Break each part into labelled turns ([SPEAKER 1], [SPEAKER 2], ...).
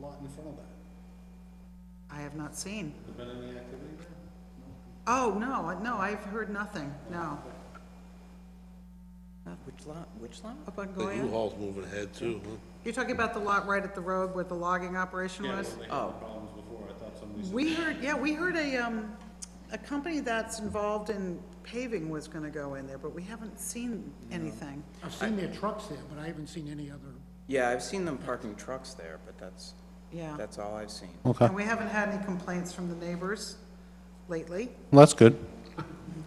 [SPEAKER 1] lot in front of that.
[SPEAKER 2] I have not seen.
[SPEAKER 1] Has there been any activity there?
[SPEAKER 2] Oh, no, I- no, I've heard nothing, no.
[SPEAKER 3] Which lot, which lot?
[SPEAKER 2] Up on
[SPEAKER 4] The
[SPEAKER 2] Goya?
[SPEAKER 4] U-Haul's moving ahead too, huh?
[SPEAKER 2] You're talking about the lot right at the road where the logging operation
[SPEAKER 1] Yeah,
[SPEAKER 2] was?
[SPEAKER 1] well, they
[SPEAKER 3] Oh.
[SPEAKER 1] had problems before, I thought somebody said,
[SPEAKER 2] We heard, yeah, we heard a, um, a company that's involved in paving was gonna go in there, but we haven't seen anything.
[SPEAKER 5] I've seen their trucks there, but I haven't seen any other,
[SPEAKER 3] Yeah, I've seen them parking trucks there, but that's,
[SPEAKER 2] Yeah.
[SPEAKER 3] that's all I've seen.
[SPEAKER 6] Okay,
[SPEAKER 2] And we haven't had any complaints from the neighbors lately.
[SPEAKER 6] well, that's good.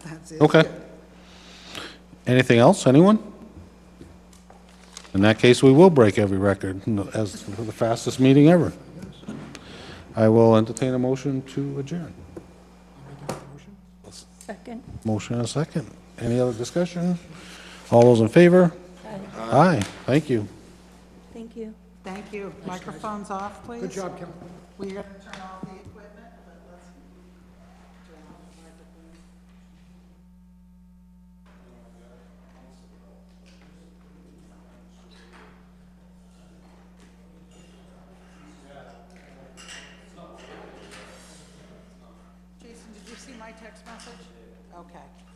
[SPEAKER 2] That's it.
[SPEAKER 6] Okay. Anything else, anyone? In that case, we will break every record as the fastest meeting ever. I will entertain a motion to adjourn.
[SPEAKER 5] I'll make that motion.
[SPEAKER 7] Second.
[SPEAKER 6] Motion and a second. Any other discussion? All those in favor? Aye, thank you.
[SPEAKER 7] Thank you.
[SPEAKER 2] Thank you. Microphones off, please.
[SPEAKER 5] Good job, Kevin.
[SPEAKER 2] We're gonna turn off the equipment, but let's turn off the microphone. Jason, did you see my text message? Okay.